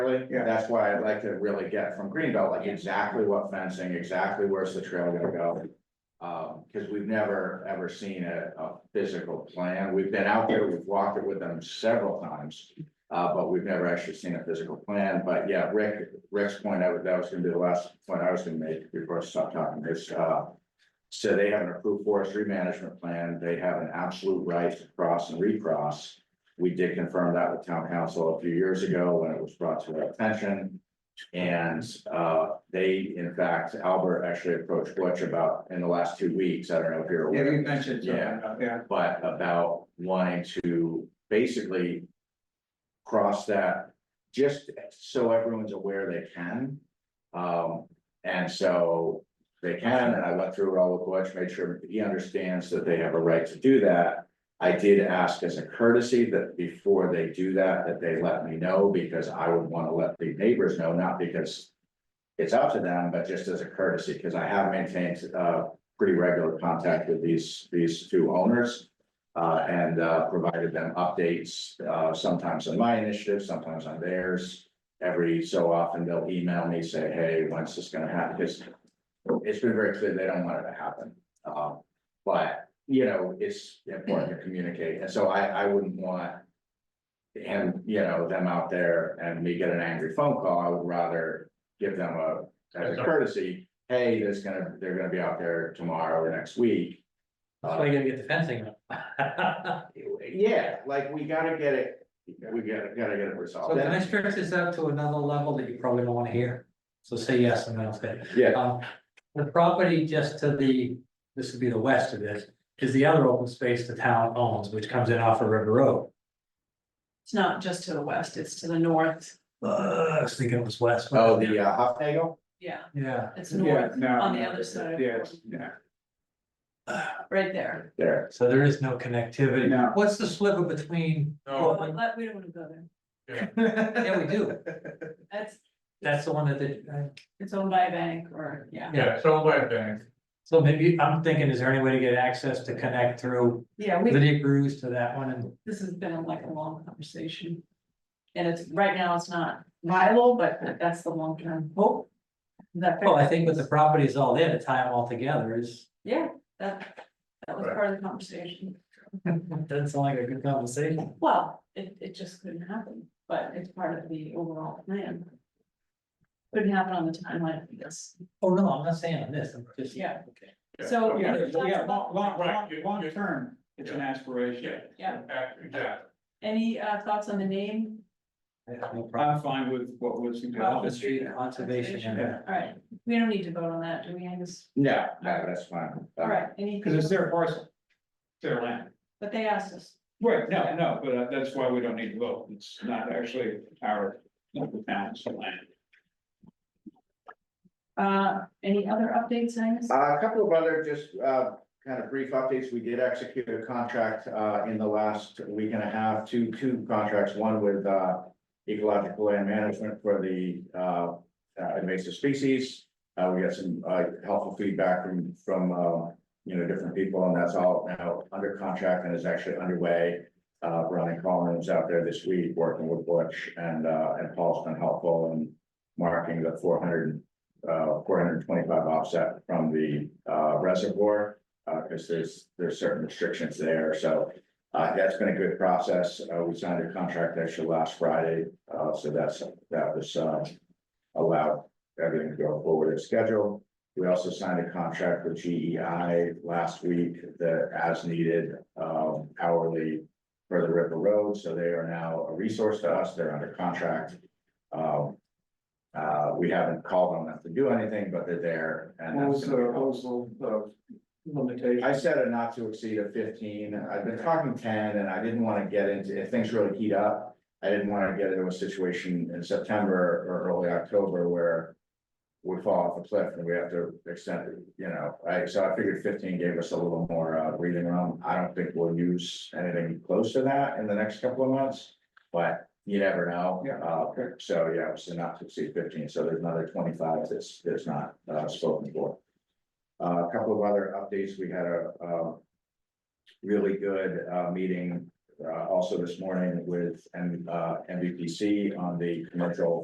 Really, Yeah. that's why I'd like to really get from Greenbelt, like exactly what fencing, exactly where's the trail gonna go? Um, cause we've never, ever seen a, a physical plan, we've been out there, we've walked it with them several times. Uh, but we've never actually seen a physical plan, but yeah, Rick, Rick's point, I was, that was gonna be the last point I was gonna make before I stopped talking, is, uh. So they have an approved forestry management plan, they have an absolute right to cross and recross. We did confirm that with town council a few years ago when it was brought to our attention. And uh, they, in fact, Albert actually approached Butch about in the last two weeks, I don't know if you're Yeah, aware, you mentioned something about that. but about wanting to basically. Cross that, just so everyone's aware they can. Um, and so they can, and I went through it all with Butch, made sure he understands that they have a right to do that. I did ask as a courtesy that before they do that, that they let me know, because I would wanna let the neighbors know, not because. It's up to them, but just as a courtesy, because I have maintained uh pretty regular contact with these, these two owners. Uh, and uh provided them updates, uh sometimes on my initiative, sometimes on theirs. Every so often, they'll email me, say, hey, when's this gonna happen? Because it's been very clear they don't want it to happen. Um, but you know, it's important to communicate, and so I, I wouldn't want. And, you know, them out there and me get an angry phone call, I would rather give them a, as a courtesy, hey, there's gonna, they're gonna be out there tomorrow or next week. That's why you gotta get the fencing up. Yeah, like, we gotta get it, we gotta, gotta get it So resolved. can I stretch this out to another level that you probably don't wanna hear? So say yes and then I'll say. Yeah, Um, the property just to the, this would be the west of this, is the other open space the town owns, which comes in off of River Road. It's not just to the west, it's to the north, Uh, I was thinking it was west. oh, the uh, Huffnagel, yeah, Yeah, it's Yeah, north, no. on the other side. Yes, yeah, right there. there, so there is no connectivity. No. What's the sliver between? Oh. Well, Well, let- we don't wanna go there, Yeah, we do. that's, That's the one that, they- uh, it's owned by a bank or, yeah, yeah, so my bank. so maybe, I'm thinking, is there any way to get access to connect through yeah, we, Lydia Cruz to that one and? this has been like a long conversation. And it's, right now, it's not viable, but that's the long term hope. Is That. fair? Oh, Well, I think with the properties all in, to tie them all together is, Yeah, that, that was part of the conversation, doesn't sound like a good conversation. well, it, it just couldn't happen, but it's part of the overall plan. Couldn't happen on the timeline, I guess, Oh, no, I'm not saying on this, I'm just. Yeah. Okay. so. Yeah, yeah, long, long, long, Right, you- long you- term, it's an Yeah. aspiration. Yeah. Exactly. Any uh thoughts on the name? I have no problem. I'm fine with what was Off the suggested. street, conservation area. Yeah. All right, we don't need to vote on that, do we, Angus? no, no, that's fine. All right, any, Because it's their parcel. Their land. but they asked us, Right, no, no, but uh, that's why we don't need to vote. It's not actually our, not the town's land. uh, any other updates, Angus? Uh, A couple of other just uh, kind of brief updates. We did execute a contract uh, in the last week and a half, two, two contracts, one with uh, ecological land management for the uh, uh, invasive species. Uh, We got some uh, helpful feedback from, from, uh, you know, different people, and that's all now under contract and is actually underway. Uh, Ronnie Collins out there this week working with Butch and, uh, and Paul's been helpful in marking the four hundred uh, four hundred and twenty-five offset from the, uh, reservoir. Uh, cause there's, there's certain restrictions there, so, uh, that's been a good process. Uh, we signed a contract actually last Friday, uh, so that's, that was, uh. Allowed everything to go forward as scheduled. We also signed a contract with GEI last week, the as needed, um, hourly. For the River Road, so they are now a resource to us, they're under contract. Um, uh, we haven't called on them to do anything, but they're there. and What was that's the, gonna be- what was the, the limitation? I said a not to exceed of fifteen, I've been talking ten, and I didn't wanna get into, if things really heat up. I didn't wanna get into a situation in September or early October where. We fall off a cliff and we have to extend it, you know, I, so I figured fifteen gave us a little more uh breathing room, I don't think we'll use anything close to that in the next couple of months. But you never know, Yeah, uh, okay. so yeah, it was a not to exceed fifteen, so there's another twenty-five that's, that's not uh spoken for. Uh, A couple of other updates, we had a, um, really good, uh, meeting, uh, also this morning with, M uh, MVPC on the commercial